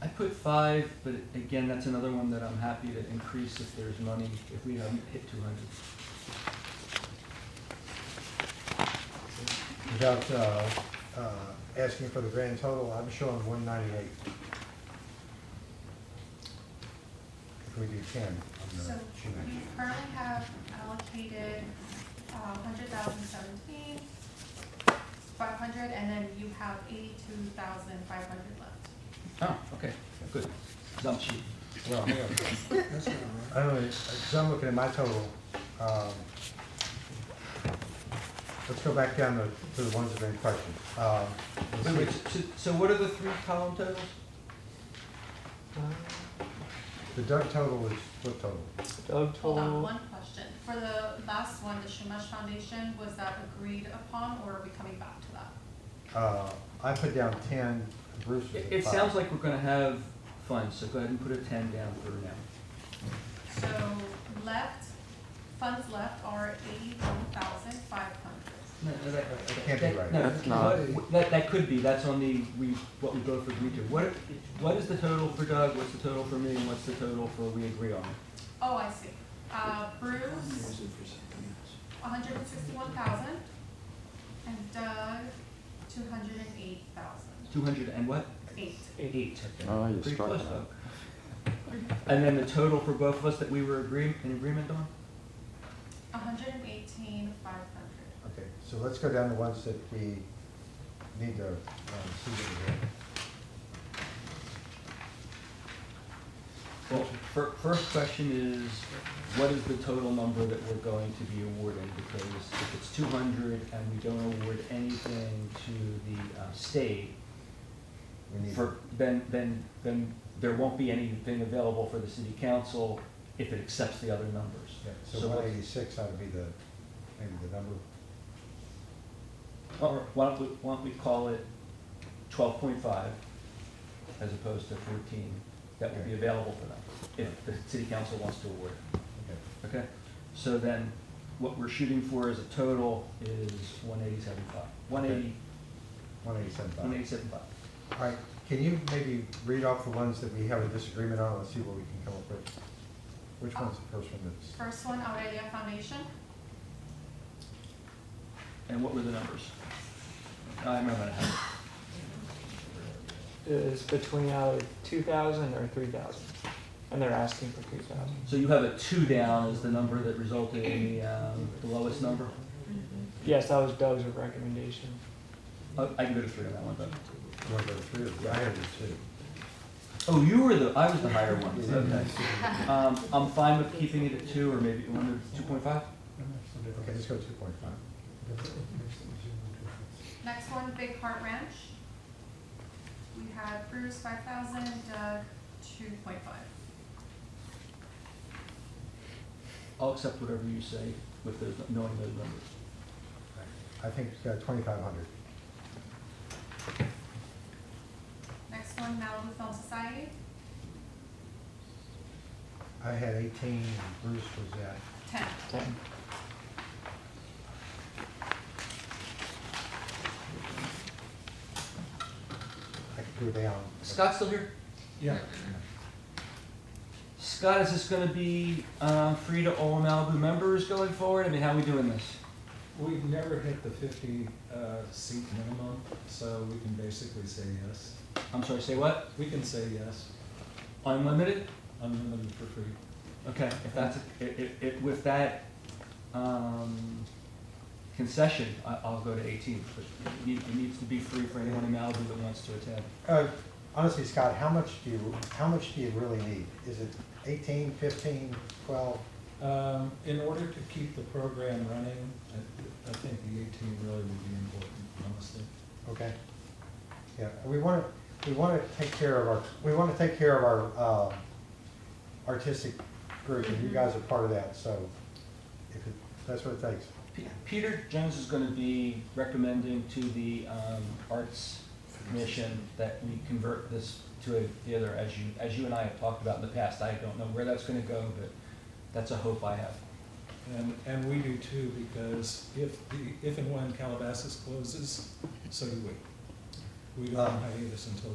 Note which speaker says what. Speaker 1: I put five, but again, that's another one that I'm happy to increase if there's money, if we haven't hit two hundred.
Speaker 2: Without uh, uh, asking for the grand total, I'm showing one ninety-eight. If we do ten. on the
Speaker 3: So
Speaker 2: sheet.
Speaker 3: we currently have allocated uh, hundred thousand seventeen, five hundred, and then you have eighty-two thousand five hundred left.
Speaker 1: Oh, okay, good. Dump sheet.
Speaker 2: Well, hang on.
Speaker 4: That's not
Speaker 2: I don't know, because I'm looking at my total. um, Let's go back down to- to the ones that are in question. Um, let's
Speaker 1: Wait, wait,
Speaker 2: see.
Speaker 1: so, so what are the three column totals?
Speaker 2: The Doug total is, what total?
Speaker 5: Doug
Speaker 3: Hold on,
Speaker 5: total,
Speaker 3: one question. For the last one, the Shumash Foundation, was that agreed upon, or are we coming back to that?
Speaker 2: Uh, I put down ten, Bruce was
Speaker 1: It,
Speaker 2: at
Speaker 1: it sounds
Speaker 2: five.
Speaker 1: like we're gonna have funds, so go ahead and put a ten down for now.
Speaker 3: So left, funds left are eighty-one thousand five hundred.
Speaker 1: No, no, that-
Speaker 2: That can't be
Speaker 1: that-
Speaker 2: right.
Speaker 1: no,
Speaker 5: That's not-
Speaker 1: what- That, that could be, that's on the, we, what we both agreed to. What, what is the total for Doug, what's the total for me, and what's the total for we agree on?
Speaker 3: Oh, I see. Uh, Bruce, hundred and sixty-one thousand, and Doug, two hundred and eight thousand,
Speaker 1: Two hundred and what?
Speaker 3: eight.
Speaker 1: Eight.
Speaker 5: Oh, you
Speaker 1: Pretty
Speaker 5: struck
Speaker 1: close
Speaker 5: that.
Speaker 1: though. And then the total for both of us that we were agreeing, in agreement on?
Speaker 3: hundred and eighteen, five hundred.
Speaker 2: Okay, so let's go down to ones that we need to um, see that we have.
Speaker 1: Well, fir- first question is, what is the total number that we're going to be awarding? Because if it's two hundred and we don't award anything to the uh, state,
Speaker 2: We need-
Speaker 1: for, then, then, then there won't be anything available for the city council if it accepts the other numbers.
Speaker 2: yeah,
Speaker 1: so
Speaker 2: So
Speaker 1: what-
Speaker 2: one eighty-six ought to be the, maybe the number.
Speaker 1: Or why don't we, why don't we call it twelve point five as opposed to fourteen that will be available for them if the city council wants to award it.
Speaker 2: Okay.
Speaker 1: Okay, so then what we're shooting for as a total is one eighty-seven five, one eighty,
Speaker 2: One eighty-seven five.
Speaker 1: one eighty-seven five.
Speaker 2: All right, can you maybe read off the ones that we have a disagreement on, let's see what we can come up with? Which one's the first one that's,
Speaker 3: First one, Aurelia Foundation,
Speaker 1: And what were the numbers? I remember now.
Speaker 5: is between either two thousand or three thousand, and they're asking for two thousand.
Speaker 1: So you have a two down is the number that resulted in the, um, the lowest number?
Speaker 5: Yes, that was Doug's recommendation.
Speaker 1: Oh, I can go to three on that one, though.
Speaker 2: one of the three, of them. I have the two.
Speaker 1: Oh, you were the, I was the higher one, okay. Um, I'm fine with keeping it at two, or maybe, one to two point five?
Speaker 2: Okay, let's go two point five.
Speaker 3: next one, Big Heart Ranch. We had Bruce, five thousand, Doug, two point five.
Speaker 1: I'll accept whatever you say with those, knowing those numbers.
Speaker 2: I think uh, twenty-five hundred.
Speaker 3: Next one, Malibu Film Society,
Speaker 2: I had eighteen, Bruce was at,
Speaker 3: ten.
Speaker 5: Ten.
Speaker 2: I could go down.
Speaker 1: Scott's still here?
Speaker 4: Yeah.
Speaker 1: Scott, is this gonna be, uh, free to all Malibu members going forward? I mean, how are we doing this?
Speaker 4: We've never hit the fifty uh, seat minimum, so we can basically say yes.
Speaker 1: I'm sorry, say what?
Speaker 4: We can say yes,
Speaker 1: Unlimited?
Speaker 4: unlimited for free.
Speaker 1: Okay, if that's, if, if, if with that, um, concession, I, I'll go to eighteen, but it need- it needs to be free for anyone in Malibu that wants to attend.
Speaker 2: Uh, Honestly, Scott, how much do you, how much do you really need? Is it eighteen, fifteen, twelve?
Speaker 4: Um, In order to keep the program running, I- I think the eighteen really would be important, honestly.
Speaker 2: Okay. Yeah, we want to, we want to take care of our, we want to take care of our um, artistic group, and you guys are part of that, so if it- that's what it takes.
Speaker 1: P- Peter Jones is gonna be recommending to the, um, Arts Commission that we convert this to a theater, as you, as you and I have talked about in the past. I don't know where that's gonna go, but that's a hope I have.
Speaker 4: And, and we do too, because if, the if and when Calabasas closes, so do we. We go on hiatus until